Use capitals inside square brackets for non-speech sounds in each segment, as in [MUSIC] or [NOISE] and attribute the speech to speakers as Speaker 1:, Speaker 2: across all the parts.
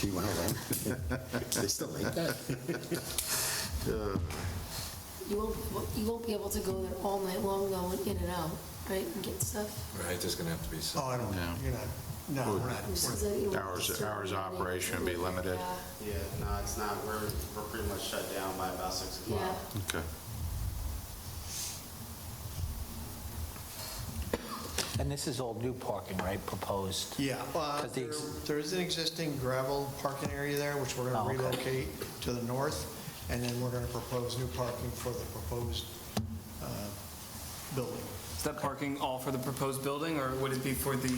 Speaker 1: Do you want to run? oh
Speaker 2: [LAUGHS]
Speaker 1: They still like that?
Speaker 3: You won't, you won't be able to go there all night long though, and in and out, right, and get stuff?
Speaker 2: Right, there's gonna have to be
Speaker 4: Oh,
Speaker 2: some,
Speaker 4: I don't, you're not, no, we're not.
Speaker 3: So that you won't
Speaker 5: Hours-
Speaker 3: disturb
Speaker 5: hours
Speaker 3: everybody.
Speaker 5: operation be limited.
Speaker 3: Yeah,
Speaker 6: Yeah, no, it's not, we're, we're pretty much shut down by about six o'clock.
Speaker 3: Yeah,
Speaker 5: Okay.
Speaker 7: And this is all new parking, right, proposed?
Speaker 4: Yeah, uh,
Speaker 7: 'Cause the
Speaker 4: there-
Speaker 7: ex-
Speaker 4: there is an existing gravel parking area there, which we're
Speaker 7: Oh,
Speaker 4: going
Speaker 7: okay.
Speaker 4: to relocate to the north, and then we're going to propose new parking for the proposed uh, building.
Speaker 8: Is that parking all for the proposed building, or would it be for the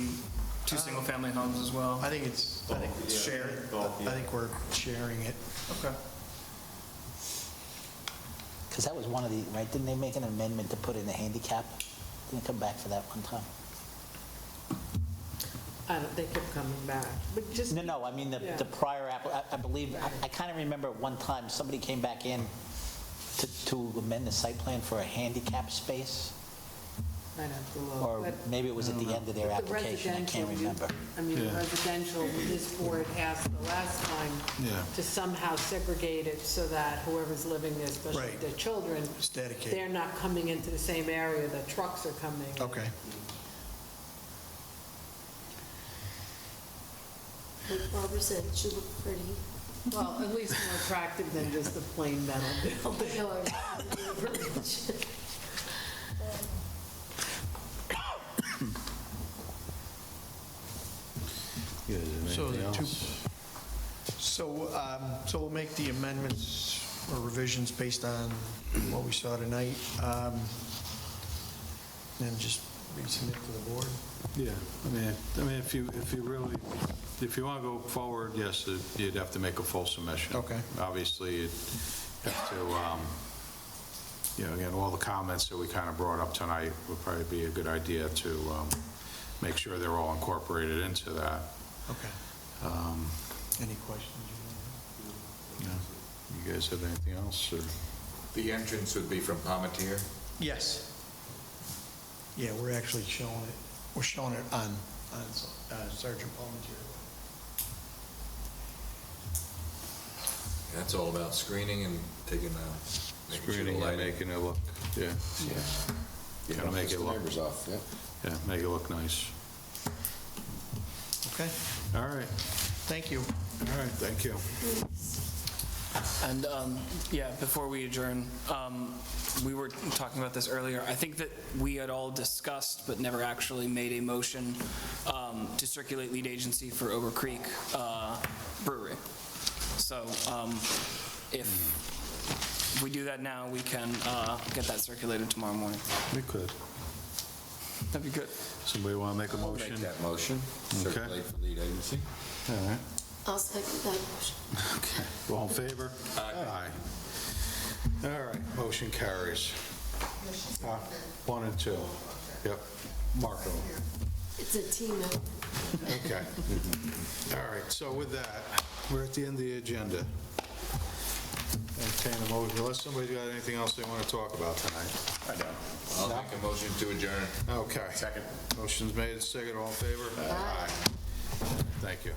Speaker 8: two single-family homes as well?
Speaker 4: I think it's, I think it's shared,
Speaker 6: Both, yeah.
Speaker 4: I think we're sharing it.
Speaker 8: Okay.
Speaker 7: Because that was one of the, right, didn't they make an amendment to put in a handicap? Didn't it come back for that one time?
Speaker 9: I don't, they kept coming back, but just.
Speaker 7: No, no, I mean, the,
Speaker 9: Yeah.
Speaker 7: the prior, app- I- I believe, I- I kind of remember at one time, somebody came back in to, to amend the site plan for a handicap space,
Speaker 9: I'd have to look,
Speaker 7: or
Speaker 9: Oh, but
Speaker 7: maybe it was at the end of their
Speaker 9: the
Speaker 7: application, I can't
Speaker 9: residential, you-
Speaker 7: remember.
Speaker 9: I mean, residential, this board asked the last time
Speaker 5: Yeah.
Speaker 9: to somehow segregate it so that whoever's living there, especially
Speaker 4: Right.
Speaker 9: their children,
Speaker 4: It's dedicated.
Speaker 9: they're not coming into the same area that trucks are coming.
Speaker 4: Okay.
Speaker 3: like Barbara said, it should look pretty.
Speaker 9: Well, at least more attractive than just the plain metal.
Speaker 3: Oh, but no, I-
Speaker 1: Yeah, is there
Speaker 4: So
Speaker 1: anything
Speaker 4: the two-
Speaker 1: else?
Speaker 4: So, um, so we'll make the amendments or revisions based on what we saw tonight, um, and just resubmit to the board.
Speaker 5: Oh, Yeah, I mean, I mean, if you, if you really, if you want to go forward, yes, uh, you'd have to make a full submission.
Speaker 4: Okay.
Speaker 5: Obviously, you'd have to, um, you know, again, all the comments that we kind of brought up tonight would probably be a good idea to um, make sure they're all incorporated into that.
Speaker 4: Okay.
Speaker 5: Um,
Speaker 4: Any questions?
Speaker 5: yeah. You guys have anything else, or?
Speaker 2: the entrance would be from Palmetier?
Speaker 4: Yes. Yeah, we're actually showing it, we're showing it on, on uh, Sergeant Palmetier.
Speaker 2: That's all about screening and taking the, making sure the
Speaker 5: Screening and
Speaker 2: lighting.
Speaker 5: making it look, yeah, Gotta
Speaker 2: Yeah,
Speaker 5: make
Speaker 2: piss
Speaker 5: it
Speaker 2: the
Speaker 5: look-
Speaker 2: Neighbors off, yeah.
Speaker 5: yeah, make it look nice.
Speaker 4: Okay,
Speaker 5: All right,
Speaker 4: thank you.
Speaker 5: all right, thank you.
Speaker 8: And, um, yeah, before we adjourn, um, we were talking about this earlier. I think that we had all discussed, but never actually made a motion um, to circulate lead agency for Ober Creek uh, Brewery. So um, if we do that now, we can uh, get that circulated tomorrow morning.
Speaker 5: We could.
Speaker 8: That'd be good.
Speaker 5: Somebody want to make a motion?
Speaker 2: Make that motion,
Speaker 5: Okay.
Speaker 2: circulate for lead agency.
Speaker 5: All right.
Speaker 3: [LAUGHS] I'll second that motion.
Speaker 5: Okay. All in favor? Aye. All right, motion carries. Uh, One and two. Yep, Marco.
Speaker 3: It's a team effort.
Speaker 5: Okay. All right, so with that, we're at the end of the agenda. Entertain a motion, unless somebody's got anything else they want to talk about tonight.
Speaker 2: I know. I'll make a motion to adjourn.
Speaker 5: Okay. Second. Motion's made, second, all in favor? Aye. Thank you.